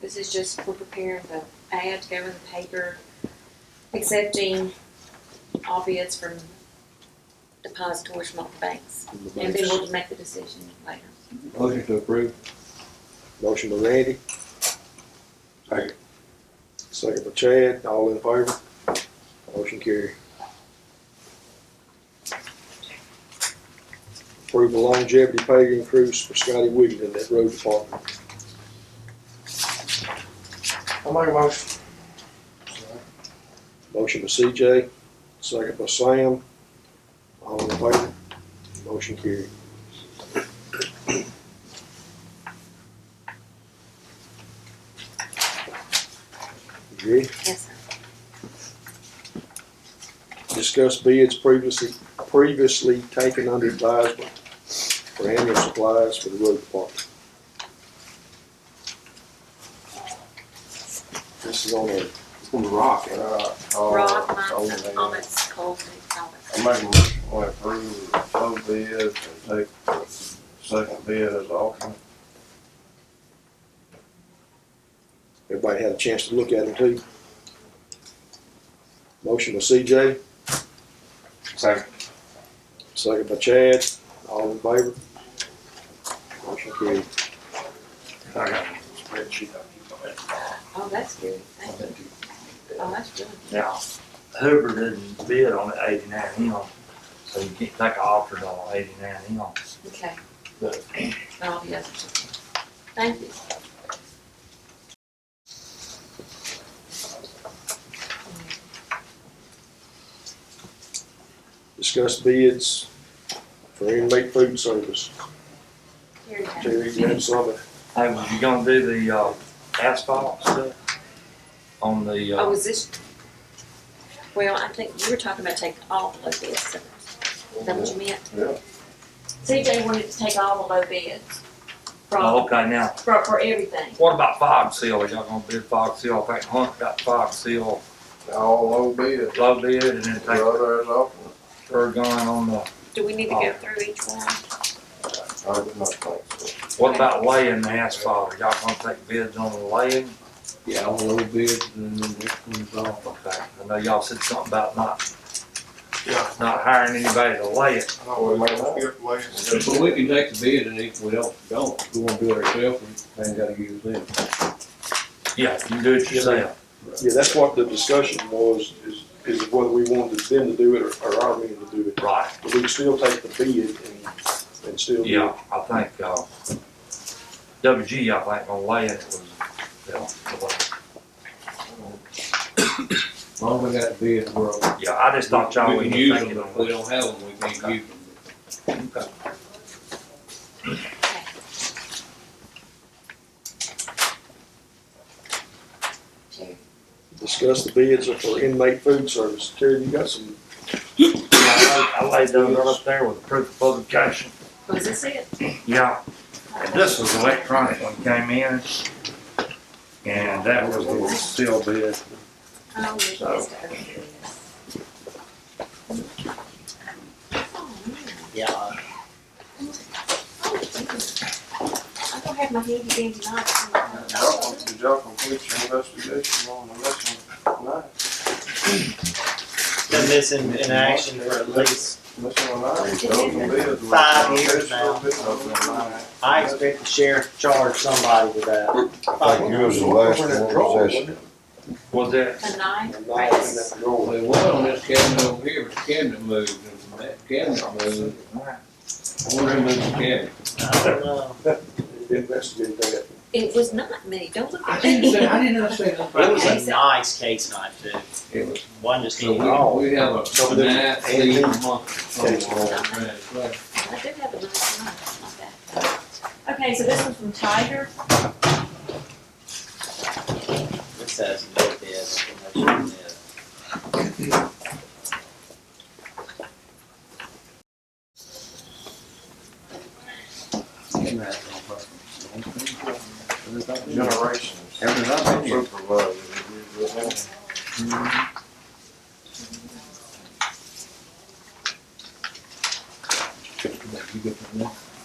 This is just for preparing the ad to go in the paper, accepting all bids from depositors from all the banks. from the And then banks. we'll make the decision later. Motion to approve. Motion by Randy. Second. Second by Chad, all in favor? Motion carried. Approve the longevity pay increase for Scotty Wiggins in that road department. I'll make a motion. Motion by CJ, second by Sam, all in favor? Motion carried. You ready? Yes, sir. discuss bids previously, previously taken under advisement for annual supplies for the road department. This is on the, It's on the rock. Uh, uh, Rock, over Monson, there. Thomas, Colton, I Thomas. make a motion to approve the low bid and take the second bid as alternate. everybody had a chance to look at them too. Motion by CJ, Second. second by Chad, all in favor? Motion carried. I got a spreadsheet I keep on it. Oh, that's good. Thank you. Oh, that's good. Now, Hoover didn't bid on the eighty-nine M, so you can't take an offer on eighty-nine M. Okay. But- All the others. Thank you. Discuss bids for inmate food service. Here you go. Terry, you had something? Hey, was you gonna do the, uh, asphalt stuff on the, Oh, uh, is this? Well, I think you were talking about taking all the low bids. Is that what you meant? Yeah. CJ wanted to take all the low bids oh, from, okay, now, for, for everything. what about fog seal? Are y'all gonna bid fog seal? I think Hunt got fog seal, All low bid, low bid, and then the take other is alternate. Ergon on the, Do we need to go through each one? I do not think so. what about laying the asphalt? Are y'all gonna take bids on the laying? Yeah, all low bids and then the next one's off. Okay, I know y'all said something about not, Yeah. not hiring anybody to lay it. I know Oh, we made a good way. But we can take the bid and if we don't, don't, we wanna do it ourselves, we ain't gotta use them. Yeah, you can do it yourself. Yeah, that's what the discussion was, is, is whether we wanted them to do it or, or our men to do it. Right. But we can still take the bid and, and still do Yeah, it. I think, uh, WG, I think, on lay it was, you know, the way- As long as we got bids, we're. all- yeah, I just thought y'all We would can be use them, thinking but if we on don't have them, we can't use them. it. Jerry? Discuss the bids for inmate food service. Terry, you got some, I laid- I laid those up there with proof of publication. Was this it? Yeah, and this was electronic when it came in. And that was the seal bid. Oh, we So- just opened this. Oh, man. Yeah, Oh, geez. I don't have my handy dandy Y'all knife. can, y'all can put your investigation on the next one tonight. been missing in action for at least, This one It tonight, y'all can is. bid. Five years now. Bid open tonight. I expect the sheriff to charge somebody with that. I think yours is the last one possession. Was that, A knife, I'm not in rice. that drawer. They was on this cabinet over here, but the cabinet moved, and when that cabinet moved, I wonder who moved the cabinet. I don't know. Investigate that. It was not me. Don't look I at didn't say, me. I did not say nothing. It was a nice case knife too. It was, One just needed. so we, we have a, a Something nice, clean antique. month. Right. I did have a nice knife, not that. Okay, so this one's from Tiger. It says no bid. no bid. Generations. Supervisor. You good for that?